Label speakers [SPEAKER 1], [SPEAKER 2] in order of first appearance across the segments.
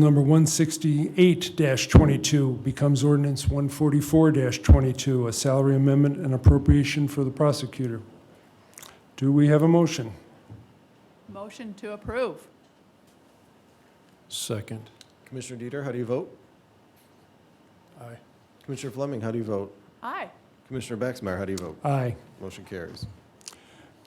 [SPEAKER 1] Number 168-22 becomes ordinance 144-22, a salary amendment and appropriation for the prosecutor. Do we have a motion?
[SPEAKER 2] Motion to approve.
[SPEAKER 3] Second.
[SPEAKER 4] Commissioner Dieter, how do you vote?
[SPEAKER 3] Aye.
[SPEAKER 4] Commissioner Fleming, how do you vote?
[SPEAKER 2] Aye.
[SPEAKER 4] Commissioner Baxmeyer, how do you vote?
[SPEAKER 1] Aye.
[SPEAKER 4] Motion carries.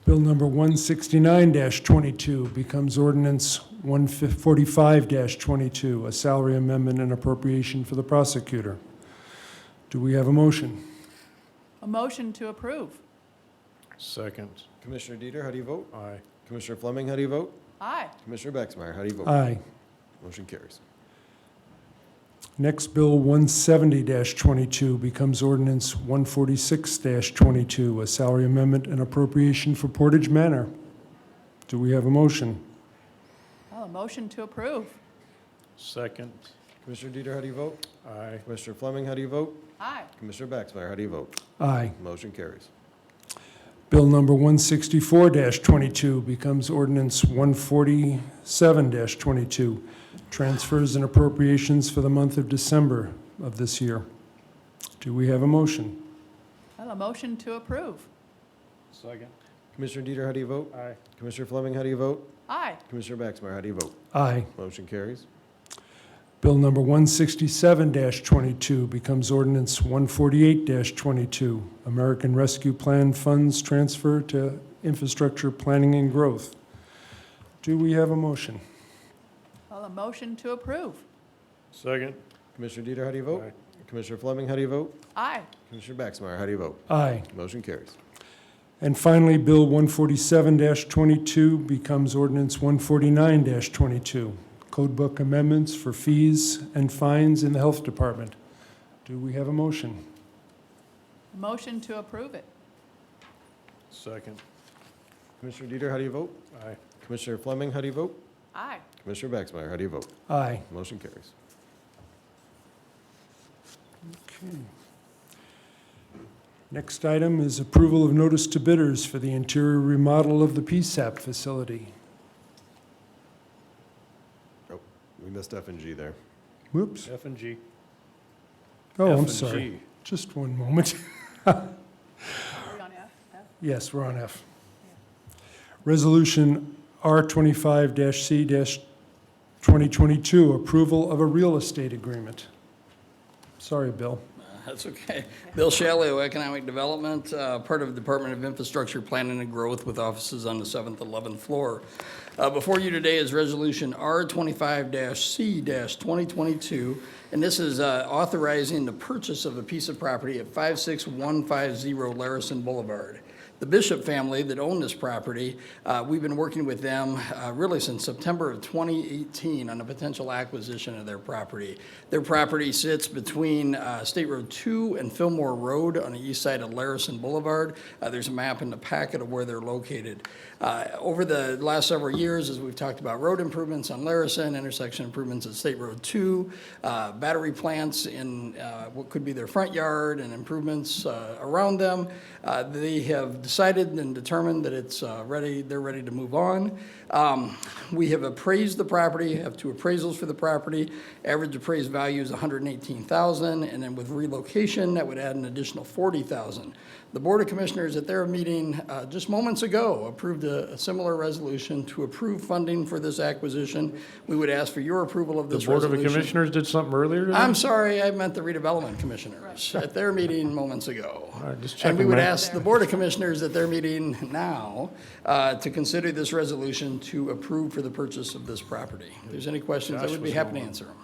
[SPEAKER 1] Bill number 169-22 becomes ordinance 145-22, a salary amendment and appropriation for the prosecutor. Do we have a motion?
[SPEAKER 2] A motion to approve.
[SPEAKER 3] Second.
[SPEAKER 4] Commissioner Dieter, how do you vote?
[SPEAKER 3] Aye.
[SPEAKER 4] Commissioner Fleming, how do you vote?
[SPEAKER 2] Aye.
[SPEAKER 4] Commissioner Baxmeyer, how do you vote?
[SPEAKER 1] Aye.
[SPEAKER 4] Motion carries.
[SPEAKER 1] Next, Bill 170-22 becomes ordinance 146-22, a salary amendment and appropriation for Portage Manor. Do we have a motion?
[SPEAKER 2] Oh, a motion to approve.
[SPEAKER 3] Second.
[SPEAKER 4] Commissioner Dieter, how do you vote?
[SPEAKER 3] Aye.
[SPEAKER 4] Commissioner Fleming, how do you vote?
[SPEAKER 2] Aye.
[SPEAKER 4] Commissioner Baxmeyer, how do you vote?
[SPEAKER 1] Aye.
[SPEAKER 4] Motion carries.
[SPEAKER 1] Bill number 164-22 becomes ordinance 147-22, transfers and appropriations for the month of December of this year. Do we have a motion?
[SPEAKER 2] Oh, a motion to approve.
[SPEAKER 3] Second.
[SPEAKER 4] Commissioner Dieter, how do you vote?
[SPEAKER 3] Aye.
[SPEAKER 4] Commissioner Fleming, how do you vote?
[SPEAKER 2] Aye.
[SPEAKER 4] Commissioner Baxmeyer, how do you vote?
[SPEAKER 1] Aye.
[SPEAKER 4] Motion carries.
[SPEAKER 1] Bill number 167-22 becomes ordinance 148-22, American Rescue Plan Funds Transfer to Infrastructure Planning and Growth. Do we have a motion?
[SPEAKER 2] Oh, a motion to approve.
[SPEAKER 3] Second.
[SPEAKER 4] Commissioner Dieter, how do you
[SPEAKER 5] Oh.
[SPEAKER 4] vote? Commissioner Fleming, how do you vote?
[SPEAKER 2] Aye.
[SPEAKER 4] Commissioner Baxmeyer, how do you vote?
[SPEAKER 1] Aye.
[SPEAKER 4] Motion carries.
[SPEAKER 1] And finally, Bill 147-22 becomes ordinance 149-22, Code Book Amendments for Fees and Fines in the Health Department. Do we have a motion?
[SPEAKER 2] A motion to approve it.
[SPEAKER 3] Second.
[SPEAKER 4] Commissioner Dieter, how do you vote?
[SPEAKER 3] Aye.
[SPEAKER 4] Commissioner Fleming, how do you vote?
[SPEAKER 2] Aye.
[SPEAKER 4] Commissioner Baxmeyer, how do you vote?
[SPEAKER 1] Aye.
[SPEAKER 4] Motion carries.
[SPEAKER 1] Okay. Hmm. Next item is approval of notice to bidders for the interior remodel of the PSAP facility.
[SPEAKER 4] We missed F and G there.
[SPEAKER 1] Whoops.
[SPEAKER 3] F and G.
[SPEAKER 1] Oh,
[SPEAKER 3] F
[SPEAKER 1] I'm
[SPEAKER 3] and
[SPEAKER 1] sorry.
[SPEAKER 3] G.
[SPEAKER 1] Just one moment.
[SPEAKER 2] Are we on F? F?
[SPEAKER 1] Yes, we're on F. Resolution R25-C-2022, approval of a real estate agreement. Sorry, Bill.
[SPEAKER 5] That's okay. Bill Shallow, Economic Development, uh, part of Department of Infrastructure Planning and Growth with offices on the 7th, 11th floor. Uh, Before you today is Resolution R25-C-2022, and this is uh, authorizing the purchase of a piece of property at 56150 Larison Boulevard the Bishop family that owned this property, uh, we've been working with them uh, really since September of 2018 on a potential acquisition of their property. Their property sits between uh, State Road 2 and Fillmore Road on the east side of Larison Boulevard. Uh, There's a map in the packet of where they're located. Uh, Over the last several years, as we've talked about road improvements on Larison, intersection improvements at State Road 2, uh, battery plants in uh, what could be their front yard and improvements uh, around them, uh, they have decided and determined that it's uh, ready, they're ready to move on. Um, We have appraised the property, have two appraisals for the property. Average appraised value is $118,000, and then with relocation, that would add an additional $40,000. The Board of Commissioners at their meeting uh, just moments ago approved a a similar resolution to approve funding for this acquisition. We would ask for your approval of
[SPEAKER 3] The
[SPEAKER 5] this
[SPEAKER 3] Board
[SPEAKER 5] resolution.
[SPEAKER 3] of Commissioners did something earlier today?
[SPEAKER 5] I'm sorry, I meant the redevelopment commissioners at their meeting moments ago.
[SPEAKER 3] right, just
[SPEAKER 5] And we
[SPEAKER 3] checking,
[SPEAKER 5] would
[SPEAKER 3] Mike.
[SPEAKER 5] ask the Board of Commissioners at their meeting now uh, to consider this resolution to approve for the purchase of this property. If there's any questions, I
[SPEAKER 3] Josh
[SPEAKER 5] would be
[SPEAKER 3] was
[SPEAKER 5] happy to
[SPEAKER 3] going.
[SPEAKER 5] answer them.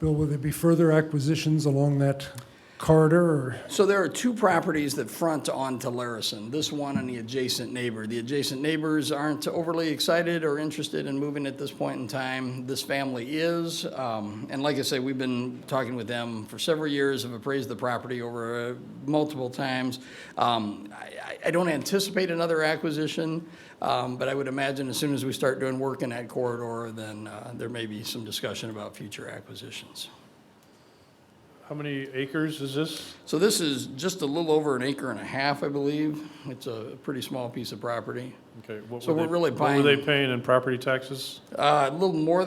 [SPEAKER 1] Bill, will there be further acquisitions along that corridor? or-
[SPEAKER 5] So there are two properties that front onto Larison, this one and the adjacent neighbor. The adjacent neighbors aren't overly excited or interested in moving at this point in time. This family is. Um, And like I say, we've been talking with them for several years, have appraised the property over uh, multiple times. Um, I I- I don't anticipate another acquisition, um, but I would imagine as soon as we start doing work in that corridor, then uh, there may be some discussion about future acquisitions.
[SPEAKER 3] How many acres is this?
[SPEAKER 5] So this is just a little over an acre and a half, I believe. It's a pretty small piece of property.
[SPEAKER 3] Okay. what
[SPEAKER 5] So
[SPEAKER 3] were
[SPEAKER 5] we're
[SPEAKER 3] they-
[SPEAKER 5] really
[SPEAKER 3] What were they
[SPEAKER 5] buying-
[SPEAKER 3] paying in property taxes?
[SPEAKER 5] Uh, A little more